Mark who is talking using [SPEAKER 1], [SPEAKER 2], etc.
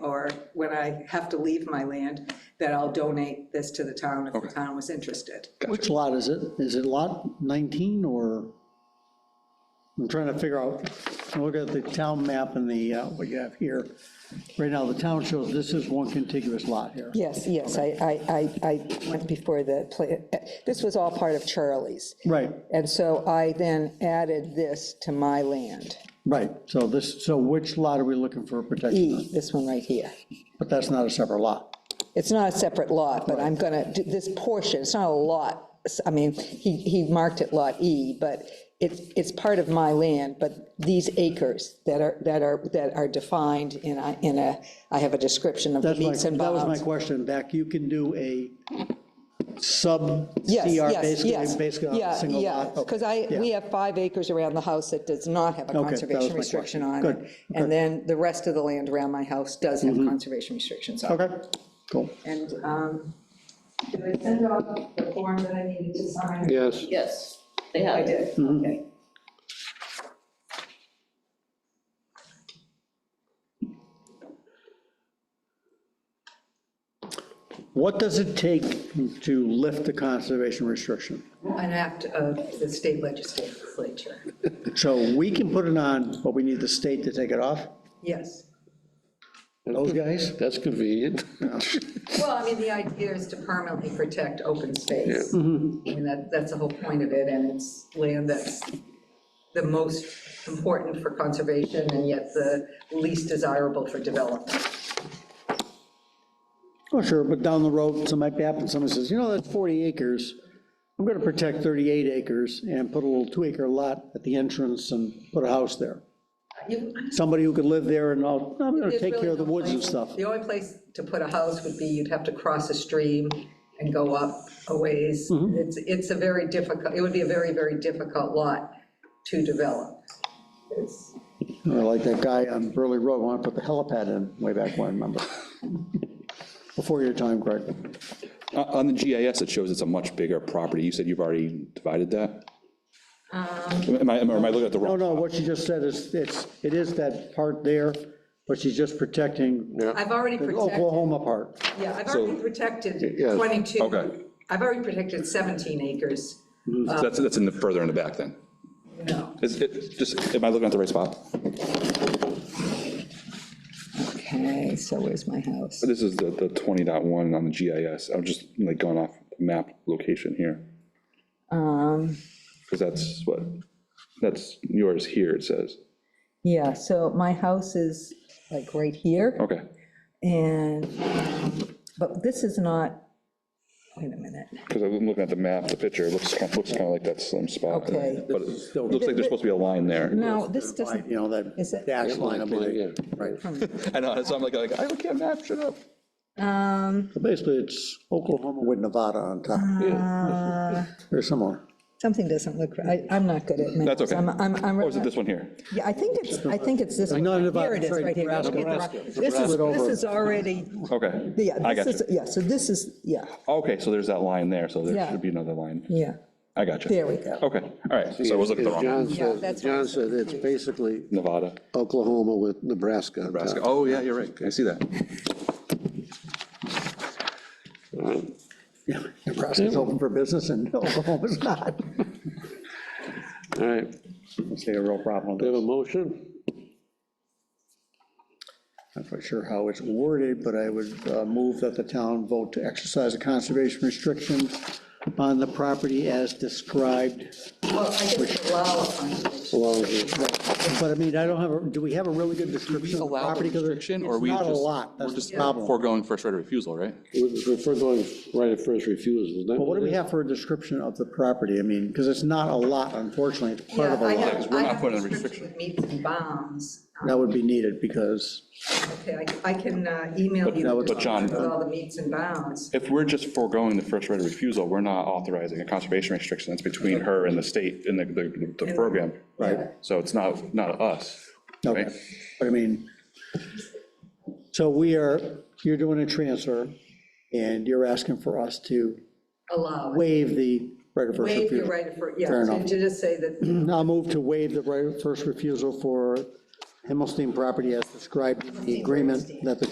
[SPEAKER 1] or when I have to leave my land, that I'll donate this to the town if the town was interested.
[SPEAKER 2] Which lot is it? Is it lot 19 or? I'm trying to figure out, look at the town map and the, uh, what you have here. Right now, the town shows this is one contiguous lot here.
[SPEAKER 3] Yes, yes, I, I, I, I went before the, pla- this was all part of Charlie's.
[SPEAKER 2] Right,
[SPEAKER 3] And so I then added this to my land,
[SPEAKER 2] right. So this, so which lot are we looking for protection on?
[SPEAKER 3] E, this one right here.
[SPEAKER 2] But that's not a separate lot.
[SPEAKER 3] It's not a separate lot, but I'm gonna, do this portion, it's not a lot, s- I mean, he, he marked it Lot E, but it's, it's part of my land, but these acres that are, that are, that are defined in a, in a, I have a description of the
[SPEAKER 2] That's my,
[SPEAKER 3] meets and
[SPEAKER 2] that was my
[SPEAKER 3] bounds.
[SPEAKER 2] question, Dak. You can do a sub CR
[SPEAKER 3] Yes, yes, yes.
[SPEAKER 2] basically, basically on a single lot. Oh,
[SPEAKER 3] Because I,
[SPEAKER 2] Yeah.
[SPEAKER 3] we have five acres around the house that does not have a
[SPEAKER 2] that was
[SPEAKER 3] conservation
[SPEAKER 2] my
[SPEAKER 3] restriction
[SPEAKER 2] question.
[SPEAKER 3] on
[SPEAKER 2] Good, Mm-hmm.
[SPEAKER 3] it. And then the rest of the land around my house does have conservation restrictions on it.
[SPEAKER 2] Okay, cool.
[SPEAKER 1] And um, did I send off the form that I needed to sign?
[SPEAKER 4] Yes.
[SPEAKER 5] Yes, they have.
[SPEAKER 1] Oh, I did, okay.
[SPEAKER 2] What does it take to lift the conservation restriction?
[SPEAKER 1] An act of the state legislature,
[SPEAKER 2] So we can put it on, but we need the state to take it off?
[SPEAKER 1] yes.
[SPEAKER 2] Those guys?
[SPEAKER 4] That's convenient.
[SPEAKER 1] Well, I mean, the idea is to permanently protect open space. I mean, that, that's the whole point of it, and it's land that's the most important for conservation and yet the least desirable for development.
[SPEAKER 2] Oh, sure, but down the road, something might happen, somebody says, you know, that's 40 acres. I'm going to protect 38 acres and put a little two-acre lot at the entrance and put a house there.
[SPEAKER 1] You-
[SPEAKER 2] Somebody who could live there and all, "No, I'm going to
[SPEAKER 1] There's
[SPEAKER 2] take
[SPEAKER 1] really
[SPEAKER 2] care of the
[SPEAKER 1] no
[SPEAKER 2] woods and
[SPEAKER 1] place-
[SPEAKER 2] stuff.
[SPEAKER 1] The only place to put a house would be you'd have to cross a stream and go up a ways.
[SPEAKER 2] Mm-hmm.
[SPEAKER 1] It's, it's a very difficult, it would be a very, very difficult lot to develop. It's-
[SPEAKER 2] You know, Like that guy on Burley Road, wanted to put the helipad in way back when, remember? Before your time, Greg.
[SPEAKER 6] Uh, On the GIS, it shows it's a much bigger property. You said you've already divided that?
[SPEAKER 3] Um,
[SPEAKER 6] Am I, am I am I looking at the
[SPEAKER 2] No,
[SPEAKER 6] wrong?
[SPEAKER 2] Oh, no, what she just said is, it's, it is that part there, but she's just protecting the
[SPEAKER 1] I've already protected.
[SPEAKER 2] Oklahoma part.
[SPEAKER 1] Yeah, I've already protected
[SPEAKER 4] Yes.
[SPEAKER 1] 22.
[SPEAKER 6] Okay.
[SPEAKER 1] I've already protected 17 acres.
[SPEAKER 6] So That's, that's in the, further in the back then.
[SPEAKER 1] No.
[SPEAKER 6] Is it, just, am I looking at the right spot?
[SPEAKER 3] Okay, so where's my house?
[SPEAKER 6] This is the, the 20.1 on the GIS. I'm just like going off the map location here.
[SPEAKER 3] Um,
[SPEAKER 6] Because that's what, that's yours here, it says.
[SPEAKER 3] Yeah, so my house is like right here,
[SPEAKER 6] Okay.
[SPEAKER 3] and, um, but this is not, wait a minute.
[SPEAKER 6] Because I'm looking at the map, the picture, it looks, kind of- looks kind of like that slim spot.
[SPEAKER 3] Okay.
[SPEAKER 6] But it looks like there's supposed to be a line there.
[SPEAKER 3] No, Oh, this doesn't,
[SPEAKER 2] You know, that
[SPEAKER 3] Is it-
[SPEAKER 2] dash line, I
[SPEAKER 4] Yeah.
[SPEAKER 2] believe. Right.
[SPEAKER 6] I know, so I'm like, like, I can't map shit up.
[SPEAKER 3] um,
[SPEAKER 2] So Basically, it's Oklahoma with Nevada on top,
[SPEAKER 3] Ah.
[SPEAKER 2] or somewhere.
[SPEAKER 3] something doesn't look, right. I- I'm not good at maps.
[SPEAKER 6] That's okay.
[SPEAKER 3] I'm, I'm, I'm-
[SPEAKER 6] Or is it this one here?
[SPEAKER 3] Yeah, I think it's, I think it's this
[SPEAKER 2] I
[SPEAKER 3] one.
[SPEAKER 2] know Nevada,
[SPEAKER 3] Here it is,
[SPEAKER 2] sorry,
[SPEAKER 3] right here.
[SPEAKER 2] Nebraska,
[SPEAKER 3] Okay,
[SPEAKER 2] Nebraska.
[SPEAKER 3] This is,
[SPEAKER 2] Flip over.
[SPEAKER 3] this is already,
[SPEAKER 6] Okay.
[SPEAKER 3] yeah,
[SPEAKER 6] I
[SPEAKER 3] this
[SPEAKER 6] got
[SPEAKER 3] is,
[SPEAKER 6] you.
[SPEAKER 3] yeah, so this is, yeah,
[SPEAKER 6] Okay, so there's that line there, so there
[SPEAKER 3] Yeah.
[SPEAKER 6] should be another line.
[SPEAKER 3] yeah,
[SPEAKER 6] I got you.
[SPEAKER 3] there we go.
[SPEAKER 6] Okay, all right, so I was looking at the wrong,
[SPEAKER 4] John said, John said it's basically
[SPEAKER 6] Nevada,
[SPEAKER 4] Oklahoma with Nebraska. on top.
[SPEAKER 6] Nebraska. Oh, yeah, you're right, I see that.
[SPEAKER 4] All right.
[SPEAKER 2] Yeah, Nebraska's open for business and Oklahoma's not.
[SPEAKER 4] All right,
[SPEAKER 2] It's a real problem.
[SPEAKER 4] we have a motion?
[SPEAKER 2] I'm not quite sure how it's worded, but I would uh, move that the town vote to exercise the conservation restrictions on the property as described.
[SPEAKER 1] Well, I guess allow a conservation.
[SPEAKER 4] Well, it's-
[SPEAKER 2] But I mean, I don't have, a do we have a really good description of the
[SPEAKER 6] allow the
[SPEAKER 2] property? 'Cause
[SPEAKER 6] restriction, or
[SPEAKER 2] it's
[SPEAKER 6] we
[SPEAKER 2] not a
[SPEAKER 6] just-
[SPEAKER 2] lot, that's
[SPEAKER 6] just
[SPEAKER 2] the problem.
[SPEAKER 6] Foregoing first right of refusal, right?
[SPEAKER 4] We're we're going right at first refusal, isn't that?
[SPEAKER 2] Well, what do we have for a description of the property? I mean, because it's not a lot, unfortunately, it's part of a
[SPEAKER 1] Yeah, I have-
[SPEAKER 2] lot.
[SPEAKER 6] we're
[SPEAKER 1] I
[SPEAKER 6] not
[SPEAKER 1] have
[SPEAKER 6] putting a
[SPEAKER 1] description with Meets and bounds.
[SPEAKER 2] That would be needed because,
[SPEAKER 1] Okay, I- I can uh, email you.
[SPEAKER 6] but
[SPEAKER 1] the
[SPEAKER 6] John-
[SPEAKER 1] description With all the meets and bounds.
[SPEAKER 6] If we're just foregoing the first right of refusal, we're not authorizing a conservation restriction, that's between her and the state and the, the, the program.
[SPEAKER 2] Right.
[SPEAKER 6] So it's not, not us,
[SPEAKER 2] okay,
[SPEAKER 6] right?
[SPEAKER 2] but I mean, so we are, you're doing a transfer and you're asking for us to
[SPEAKER 1] Allow. it.
[SPEAKER 2] waive the right of first
[SPEAKER 1] Waive your
[SPEAKER 2] refusal.
[SPEAKER 1] right of, fir- yeah,
[SPEAKER 2] Fair
[SPEAKER 1] to
[SPEAKER 2] enough.
[SPEAKER 1] to just say that,
[SPEAKER 2] I'll move to waive the right of first refusal for Himmelstein property as described in the agreement that the